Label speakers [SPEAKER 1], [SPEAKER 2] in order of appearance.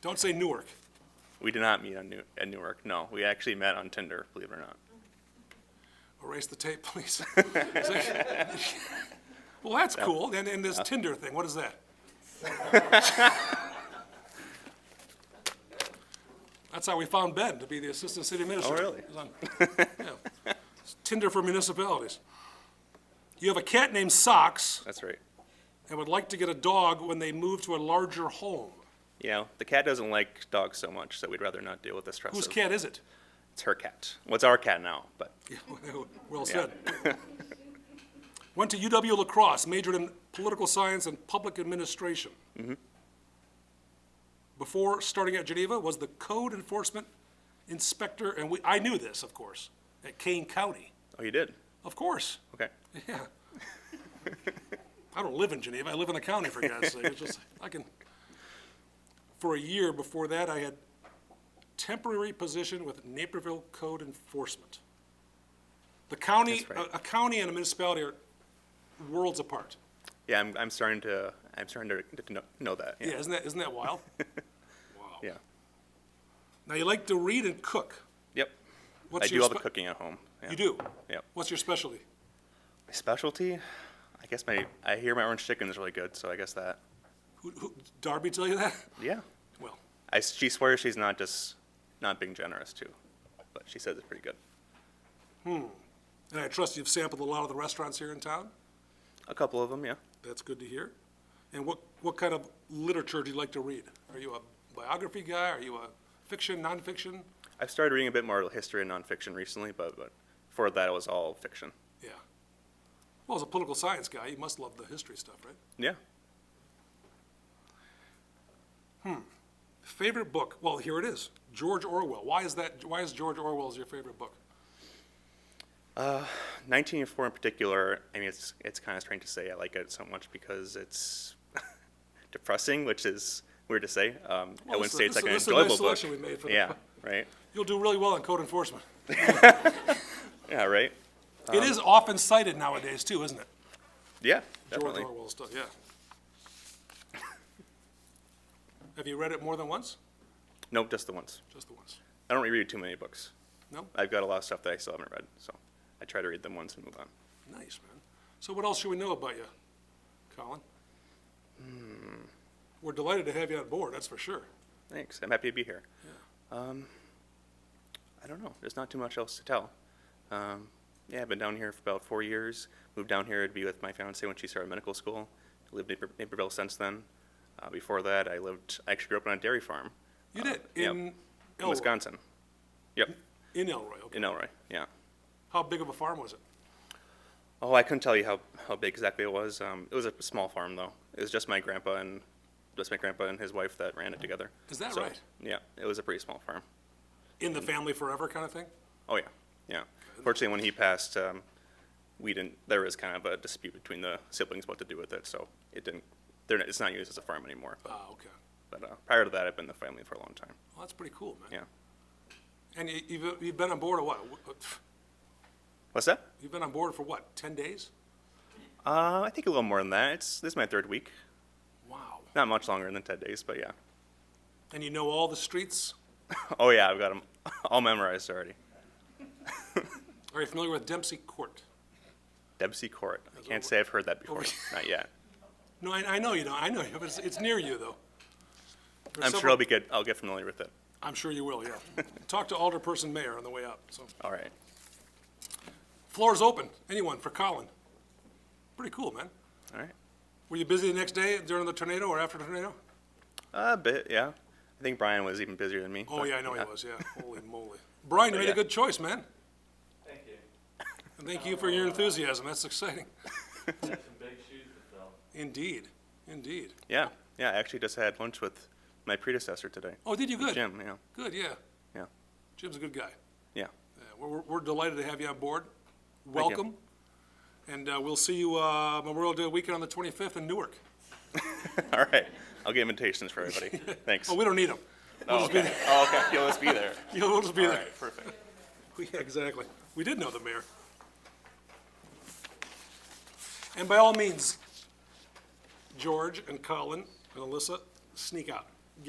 [SPEAKER 1] Don't say Newark.
[SPEAKER 2] We did not meet on New, at Newark, no. We actually met on Tinder, believe it or not.
[SPEAKER 1] Erase the tape, please. Well, that's cool. And, and this Tinder thing, what is that? That's how we found Ben to be the Assistant City Administrator.
[SPEAKER 2] really?
[SPEAKER 1] He was on- yeah. Tinder for municipalities. You have a cat named Socks
[SPEAKER 2] That's right.
[SPEAKER 1] and would like to get a dog when they move to a larger home.
[SPEAKER 2] You know, the cat doesn't like dogs so much, so we'd rather not deal with the stress
[SPEAKER 1] Whose
[SPEAKER 2] of
[SPEAKER 1] cat is it?
[SPEAKER 2] It's her cat. What's our cat now? But
[SPEAKER 1] Yeah, Well said. Went to UW La Crosse, majored in political science and public administration. Before starting at Geneva, was the code enforcement inspector, and we, I knew this, of course, at Kane County.
[SPEAKER 2] oh, you did.
[SPEAKER 1] Of course,
[SPEAKER 2] Okay.
[SPEAKER 1] yeah. I don't live in Geneva, I live in the county, for God's sake, it's just, I can. For a year before that, I had temporary position with Naperville Code Enforcement. The county,
[SPEAKER 2] That's right.
[SPEAKER 1] a a county and a municipality are worlds apart.
[SPEAKER 2] Yeah, I'm, I'm starting to I'm starting to, to know, know that. Yeah.
[SPEAKER 1] Yeah, isn't that, isn't that wild?
[SPEAKER 2] yeah.
[SPEAKER 1] Now, you like to read and cook.
[SPEAKER 2] Yep.
[SPEAKER 1] What's
[SPEAKER 2] I do
[SPEAKER 1] your
[SPEAKER 2] all the
[SPEAKER 1] spe-
[SPEAKER 2] cooking at home. Yeah.
[SPEAKER 1] You do?
[SPEAKER 2] Yep.
[SPEAKER 1] What's your specialty?
[SPEAKER 2] My specialty? I guess my I hear my orange chicken is really good, so I guess that.
[SPEAKER 1] Who, who, Darby tell you that?
[SPEAKER 2] Yeah.
[SPEAKER 1] Well,
[SPEAKER 2] I, she swears she's not just not being generous too, but she says it's pretty good.
[SPEAKER 1] and I trust you've sampled a lot of the restaurants here in town?
[SPEAKER 2] A couple of them, yeah.
[SPEAKER 1] That's good to hear. And what, what kind of literature do you like to read? Are you a biography guy? Are you a fiction, nonfiction?
[SPEAKER 2] I've started reading a bit more history and nonfiction recently, but, but before that it was all fiction.
[SPEAKER 1] Yeah. Well, as a political science guy, you must love the history stuff, right?
[SPEAKER 2] Yeah.
[SPEAKER 1] Favorite book? Well, here it is, George Orwell. Why is that, why is George Orwell's your favorite book?
[SPEAKER 2] 1984 in particular, I mean, it's it's kind of strange to say I like it so much because it's depressing, which is weird to say. Um,
[SPEAKER 1] Well,
[SPEAKER 2] I
[SPEAKER 1] this
[SPEAKER 2] wouldn't
[SPEAKER 1] is-
[SPEAKER 2] say it's
[SPEAKER 1] this
[SPEAKER 2] like an
[SPEAKER 1] is- this is a nice
[SPEAKER 2] enjoyable book.
[SPEAKER 1] selection we made for the-
[SPEAKER 2] yeah, right.
[SPEAKER 1] You'll do really well in code enforcement.
[SPEAKER 2] Yeah, right. Um,
[SPEAKER 1] It is often cited nowadays too, isn't it?
[SPEAKER 2] Yeah,
[SPEAKER 1] George
[SPEAKER 2] definitely.
[SPEAKER 1] Orwell's stuff, yeah. Have you read it more than once?
[SPEAKER 2] No, just the ones.
[SPEAKER 1] Just the once?
[SPEAKER 2] I don't reread too many books.
[SPEAKER 1] No?
[SPEAKER 2] I've got a lot of stuff that I still haven't read, so I try to read them once and move on.
[SPEAKER 1] Nice, man. So what else should we know about you, Colin?
[SPEAKER 2] Hmm.
[SPEAKER 1] We're delighted to have you on board, that's for sure.
[SPEAKER 2] Thanks. I'm happy to be here. Um, I don't know. There's not too much else to tell. Um, yeah, I've been down here for about four years. Moved down here to be with my fiance when she started medical school. Lived in Naper- Naperville since then. Uh, before that, I lived. I actually grew up on a dairy farm
[SPEAKER 1] You did, in
[SPEAKER 2] yep. Uh, in
[SPEAKER 1] Elroy?
[SPEAKER 2] Wisconsin. Yep,
[SPEAKER 1] In Elroy, okay.
[SPEAKER 2] in Elroy. Yeah.
[SPEAKER 1] How big of a farm was it?
[SPEAKER 2] Oh, I couldn't tell you how, how big exactly it was. Um, it was a small farm though. It was just my grandpa and just my grandpa and his wife that ran it together.
[SPEAKER 1] Is that
[SPEAKER 2] So,
[SPEAKER 1] right?
[SPEAKER 2] Yeah, it was a pretty small farm.
[SPEAKER 1] In
[SPEAKER 2] Mm.
[SPEAKER 1] the family forever kind of thing?
[SPEAKER 2] Oh, yeah, yeah. Fortunately, when he passed, um, we didn't, there was kind of a dispute between the siblings what to do with it, so it didn't, they're, not- it's not used as a farm anymore. But,
[SPEAKER 1] Ah, okay.
[SPEAKER 2] but, uh, prior to that, I've been in the family for a long time,
[SPEAKER 1] Well, that's pretty cool, man.
[SPEAKER 2] yeah.
[SPEAKER 1] And you- you've, you've been on board a what?
[SPEAKER 2] What's that?
[SPEAKER 1] You've been on board for what, 10 days?
[SPEAKER 2] Uh, I think a little more than that. It's, this is my third week.
[SPEAKER 1] Wow.
[SPEAKER 2] Not much longer than 10 days, but yeah.
[SPEAKER 1] And you know all the streets?
[SPEAKER 2] Oh, yeah, I've got them all memorized already.
[SPEAKER 1] Are you familiar with Dempsey Court?
[SPEAKER 2] Debsey Court. I
[SPEAKER 1] Over-
[SPEAKER 2] can't say I've heard that before, not yet.
[SPEAKER 1] No, I, I know you don't, I know you, but it's, it's near you, though. There's
[SPEAKER 2] I'm sure
[SPEAKER 1] several-
[SPEAKER 2] I'll be good, I'll get familiar with it.
[SPEAKER 1] I'm sure you will, yeah. Talk to Alderperson Mayor on the way up, so.
[SPEAKER 2] All right.
[SPEAKER 1] Floor is open, anyone, for Colin. Pretty cool, man.
[SPEAKER 2] All right.
[SPEAKER 1] Were you busy the next day during the tornado or after the tornado?
[SPEAKER 2] A bit, yeah. I think Brian was even busier than me.
[SPEAKER 1] Oh,
[SPEAKER 2] but
[SPEAKER 1] yeah, I know he was, yeah. Holy moly. Brian, you made a
[SPEAKER 2] Yeah.
[SPEAKER 1] good choice, man.
[SPEAKER 3] Thank you.
[SPEAKER 1] And thank you for your enthusiasm, that's exciting.
[SPEAKER 3] That's some big shoes to fill.
[SPEAKER 1] Indeed, indeed.
[SPEAKER 2] Yeah, yeah. I actually just had lunch with my predecessor today,
[SPEAKER 1] Oh, did you good?
[SPEAKER 2] Jim. Yeah,
[SPEAKER 1] Good, yeah.
[SPEAKER 2] yeah,
[SPEAKER 1] Jim's a good guy.
[SPEAKER 2] yeah.
[SPEAKER 1] Yeah, We're, we're- we're delighted to have you on board. Welcome. And uh, we'll see you uh, Memorial Day weekend on the 25th in Newark.
[SPEAKER 2] All right, I'll get invitations for everybody. Thanks.
[SPEAKER 1] Oh, we don't need them.
[SPEAKER 2] Oh, okay. Oh, okay. You'll just be there.
[SPEAKER 1] You'll just be
[SPEAKER 2] All
[SPEAKER 1] there.
[SPEAKER 2] right, perfect.
[SPEAKER 1] Yeah, exactly. We did know the mayor. And by all means, George and Colin and Alyssa, sneak out.